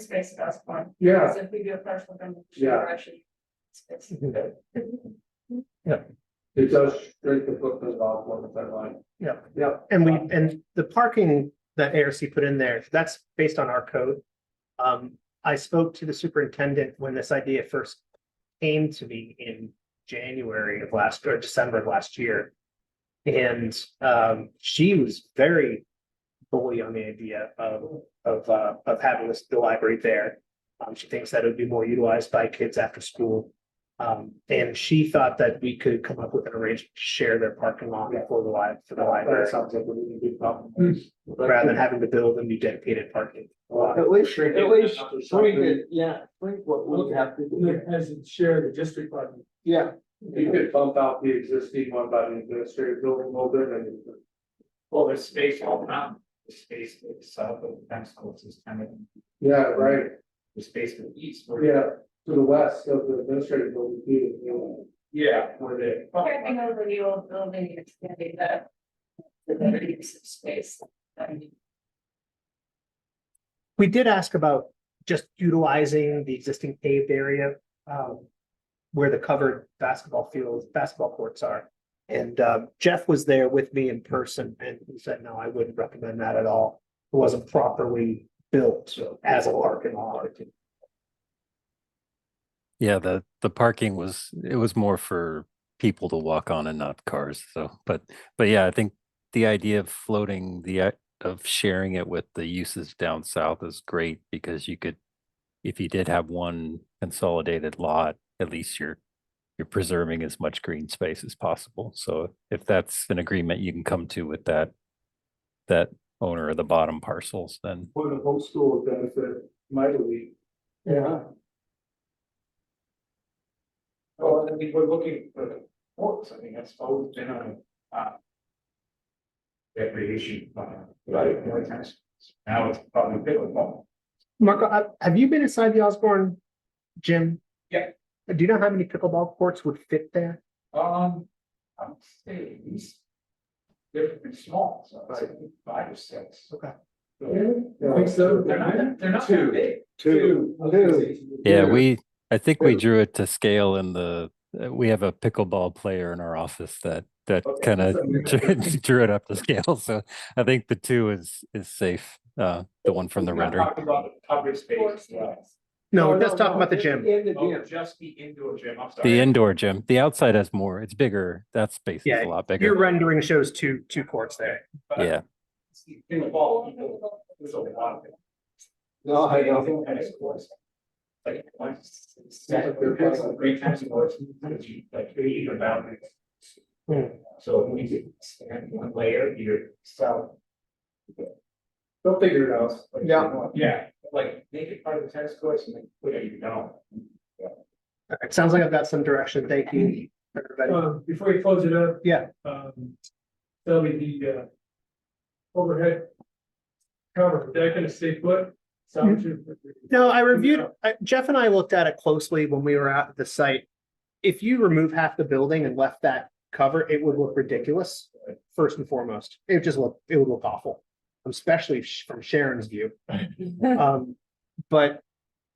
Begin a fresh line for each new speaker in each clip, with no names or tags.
space at that point.
Yeah,
Because if we do a partial demolition.
Yeah.
actually space.
it does shrink the footprint of all one fence line.
Yeah.
Yeah.
And we, and the parking that ARC put in there, that's based on our code. Um, I spoke to the superintendent when this idea first came to me in January of last, or December of last year. And, um, she was very bully on the idea of, of, uh, of having this, the library there. Um, she thinks that it would be more utilized by kids after school. Um, and she thought that we could come up with an arrangement to share their parking lot for the li, for the library
That sounds like a really big problem.
Hmm. rather than having to build a new dedicated parking.
Well,
At least,
Shrink
at
it
least,
up or
we
something.
could, yeah, think what we have to do.
As it share the district button.
Yeah,
You could bump out the existing one by the administrative building a little bit and.
Well, there's space all around, the space to the south of the fence house is kind of,
Yeah, right,
the space to the east. where-
yeah, to the west of the administrative building. too, you know.
Yeah, where the.
Carrying over the old building, and extending the. The better use of space. And
We did ask about just utilizing the existing paved area, um, where the covered basketball fields, basketball courts are. And, uh, Jeff was there with me in person and he said, no, I wouldn't recommend that at all. It wasn't properly built as a parking lot.
Yeah, the the parking was it was more for people to walk on and not cars. So, but but yeah, I think the idea of floating the i- of sharing it with the uses down south is great because you could, if you did have one consolidated lot, at least you're you're preserving as much green space as possible. So if that's an agreement you can come to with that that owner of the bottom parcels, then
For the whole school benefit mightily.
yeah.
Well, I mean, we're looking for the courts, I mean, that's always been a, uh. Recreation, uh, right, more times, now it's probably pickleball.
Marco, uh, have you been inside the Osborne gym?
Yeah.
Do you know how many pickleball courts would fit there?
Um, I would say at least. They're pretty small, so I'd say five or six.
Okay.
I think so.
They're not, that- they're not that
Two.
big.
Two.
Yeah, we, I think we
Good.
drew it to scale in the, uh, we have a pickleball player in our office that, that
Okay,
kind of
so-
drew it up to scale. So I think the two is, is safe. Uh, the one from the
We're not
rendering.
talking about the Covered space,
force
yeah.
yes.
Oh,
No, let's talk about the
in-
gym.
In the
Oh,
gym,
just the indoor gym, I'm sorry.
The indoor gym, the outside has more, it's bigger. That space is
Yeah,
a lot
Your
bigger.
rendering shows two, two courts there.
But
Yeah,
it's the Pickleball, people, there's a lot of it.
no, I know,
And it's course. Like, like, it's- it's-
Yeah.
we've had some great times in course, like, three or boundaries.
Hmm.
So we could expand one layer, either south.
They'll figure it out.
like,
Yeah.
Yeah, like, make it part of the tennis courts and like, whatever you know.
All right, sounds like I've got some direction. Thank you, everybody.
Um, before we close it up.
Yeah.
Um, that'll be the, uh, overhead cover, is that gonna stay put? Sound to-
No, I reviewed, I- Jeff and I looked at it closely when we were out at the site. If you remove half the building and left that cover, it would look ridiculous, first and foremost. It would just look, it would look awful, especially sh- from Sharon's view. Um, but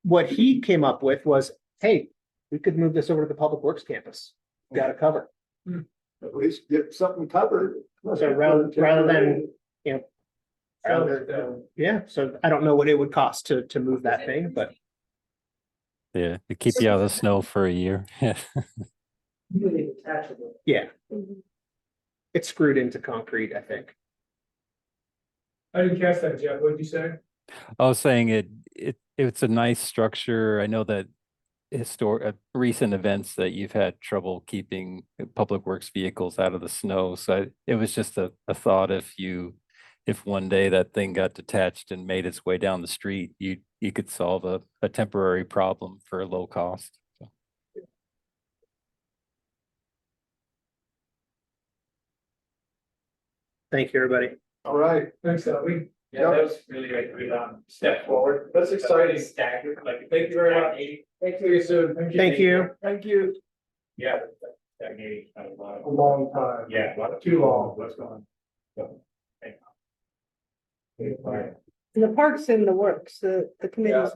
what he came up with was, hey, we could move this over to the public works campus. Got a cover.
at least get something covered.
So rather- rather than- Yeah, so I don't know what it would cost to, to move that thing, but.
yeah, to keep you out of the snow for a year. Yeah.
Really detachable.
Yeah,
Mhm.
it's screwed into concrete, I think.
uh,
I didn't catch that, Jeff, what'd you say?
I was saying it, it, it's a nice structure. I know that historic, recent events that you've had trouble keeping uh, public works vehicles out of the snow. So I- it was just a, a thought if you, if one day that thing got detached and made its way down the street, you, you could solve a, a temporary problem for a low cost. So,
Thank you, everybody.
All right,
Thanks, uh, we,
Yeah, that was really a great, um, step forward.
That's
Exciting staggered, like. Thank you very much.
Thank you, soon.
Thank you.
thank you.
Yeah, that- that gave a lot
A
of,
long time.
yeah, a lot of.
Too long.
What's going on? So, thank you.
And The park's in the works, the, the committee's